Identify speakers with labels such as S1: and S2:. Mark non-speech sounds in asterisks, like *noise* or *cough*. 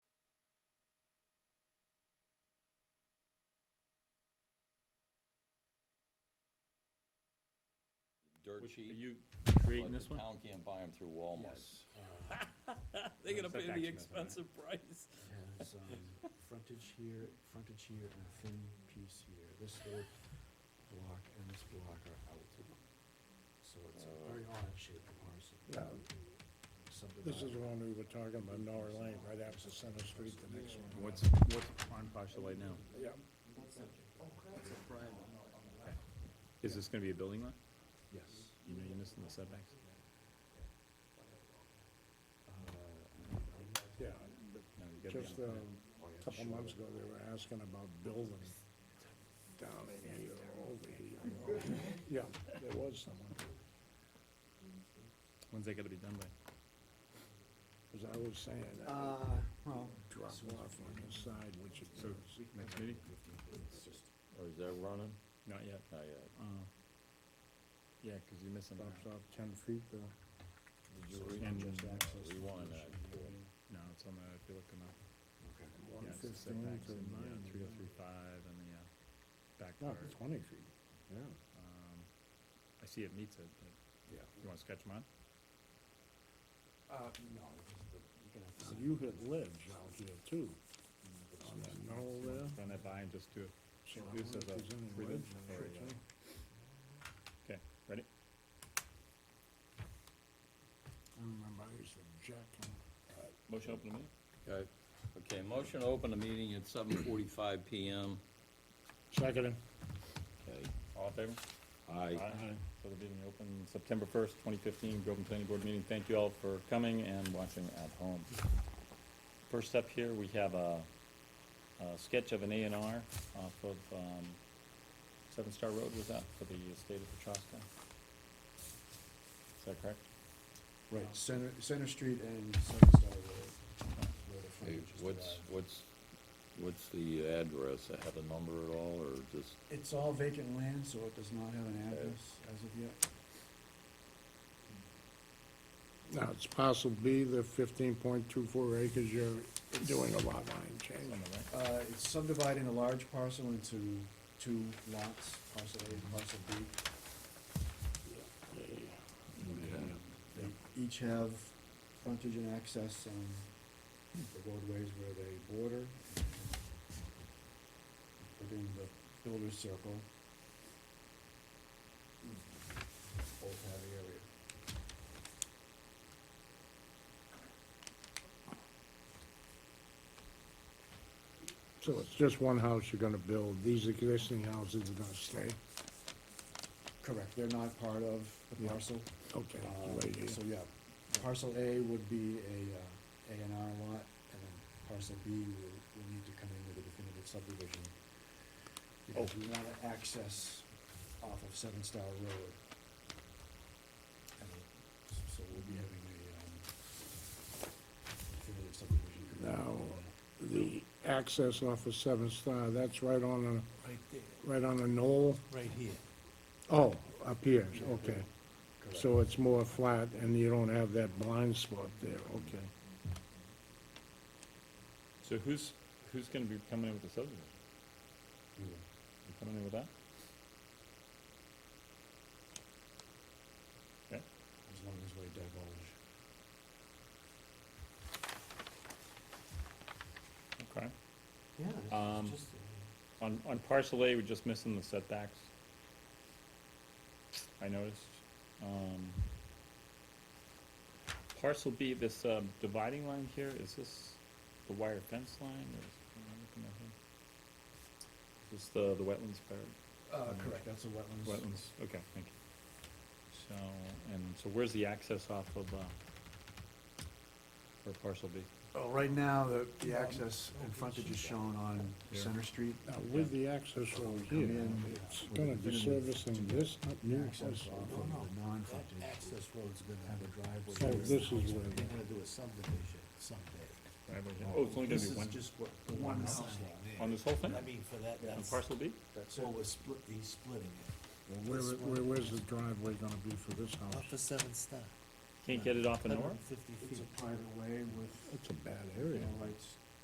S1: dirt
S2: Which- Are
S1: cheap.
S2: you
S1: but
S2: creating
S1: the
S2: this one?
S1: Town can't buy them through Walmart.
S3: They're gonna pay the
S2: Setbacks method, right?
S3: expensive price.
S4: has, um, frontage here, frontage here, and a thin piece here. This little block and this block are out. So it's a very odd shaped parcel.
S5: Yeah. This is
S4: Subdivided.
S5: the one we were talking about, Nora Lane, right after Center Street, the next one.
S2: What's, what's on parcel right now?
S5: Yeah,
S2: Is this gonna be a building lot?
S4: Yes.
S2: You know, you're missing the setbacks.
S5: yeah,
S2: No, you
S5: but
S2: gotta be
S5: just uh,
S2: on- Oh,
S5: a couple months ago, they were asking about building down in here, over *laughs* here. Yeah, there was someone,
S2: When's that gotta be done by?
S5: because I was saying
S4: Uh,
S5: that
S4: well,
S5: drop off on the side, which it
S2: So,
S5: is.
S2: next meeting?
S1: Or Oh, is that running?
S2: Not yet.
S1: Not yet.
S2: Uh, Yeah, cause you're missing.
S5: Drops off ten feet, uh,
S1: Did you
S4: so
S1: read?
S2: And-
S4: just access to
S1: Rewind
S4: the
S1: that.
S4: issue.
S2: No, it's on the, if you look them up.
S4: Okay.
S5: one
S2: Yeah, it's the
S5: fifteen
S2: setbacks
S5: to
S2: in the
S5: nine.
S2: three oh three five and the, uh, back
S5: No,
S2: part.
S5: twenty feet, yeah.
S2: Um, I see it meets it, but
S5: Yeah.
S2: you wanna sketch them out?
S4: Uh, no, you're gonna have to.
S5: So you Oh, had ledge out here too, on that knoll there.
S2: Run that by and just do it.
S5: So
S2: This
S5: I wonder
S2: is
S5: if
S2: a
S5: there's any
S2: three-dimensional
S5: ledge
S2: area.
S5: picture.
S2: Okay, ready?
S5: I remember I used to jack them.
S2: Motion open to me?
S1: Okay, okay, motion to open the meeting at seven forty-five PM.
S5: Second.
S1: Okay,
S2: All in favor?
S1: aye.
S2: So the meeting open September first, twenty fifteen, Groveland Planning Board meeting. Thank you all for coming and watching at home. First up here, we have a, a sketch of an A and R off of, um, Seven Star Road, was that for the estate of Petrosca? Is that correct?
S4: Right, Uh, Center, Center Street and Center Star Road. where
S1: Hey,
S4: the frontage is
S1: what's,
S4: divided.
S1: what's, what's the address? I have a number at all, or just,
S4: It's all vacant land, so it does not have an address
S1: Uh,
S4: as of yet.
S5: Now, it's parcel B, the fifteen point two four acres, you're doing a lot line change.
S2: On the right?
S4: Uh, it's subdividing a large parcel into two lots, parcel A and parcel B. They each have frontage and access on the roadways where they border. Within the builder's circle. Both have area.
S5: So it's just one house you're gonna build, these existing houses are gonna stay,
S4: Correct, they're not part of the
S5: Yeah.
S4: parcel.
S5: okay,
S4: Um,
S5: right here.
S4: So, yeah, parcel A would be a, uh, A and R lot, and then parcel B will, will need to come in with a definitive subdivision. Because we wanna access off of Seven Star Road. And s- so we'll be having a, um, definitive subdivision.
S5: Now, the access off of Seven Star, that's right on
S6: Right there,
S5: a, right on a knoll,
S6: right here.
S5: oh, up here, okay.
S4: Correct.
S5: So it's more flat and you don't have that blind spot there, okay.
S2: So who's, who's gonna be coming in with the subdivision?
S4: We will.
S2: You coming in with that? Okay.
S4: as long as we divulge.
S2: Okay.
S4: Yeah,
S2: Um, On, on parcel A, we're just missing the setbacks. I noticed. Um, parcel B, this, um, dividing line here, is this the wire fence line or is, am I looking at here? Is this the, the wetlands part?
S4: Uh, correct, that's a wetlands.
S2: Wetlands, okay, thank you. So, and so where's the access off of, uh, for parcel B?
S4: Oh, right now, the, the access and frontage is shown on
S2: Yeah.
S4: Center Street.
S5: Now, with the access road here,
S4: in
S5: it's
S4: with
S5: gonna
S4: the
S5: be
S4: minimum
S5: servicing this new
S4: Access
S5: house.
S4: off of the non-frontage.
S6: Access road's gonna have a
S5: So
S6: driveway.
S5: this is where,
S6: They're gonna do a subdivision someday.
S2: Oh, it's only gonna
S6: This
S2: be
S6: is
S2: one,
S6: just what, the one house lot there.
S2: on this whole thing?
S6: I mean, for that,
S2: On
S6: that's,
S2: parcel B?
S6: that's what we're split, he's splitting it.
S5: where, where, where's the driveway gonna be for this
S6: Not for
S5: house?
S6: seven star.
S2: Can't get it off of north?
S6: Fifty
S4: It's
S6: feet.
S4: a private way with
S5: It's a bad
S4: no
S5: area.
S4: rights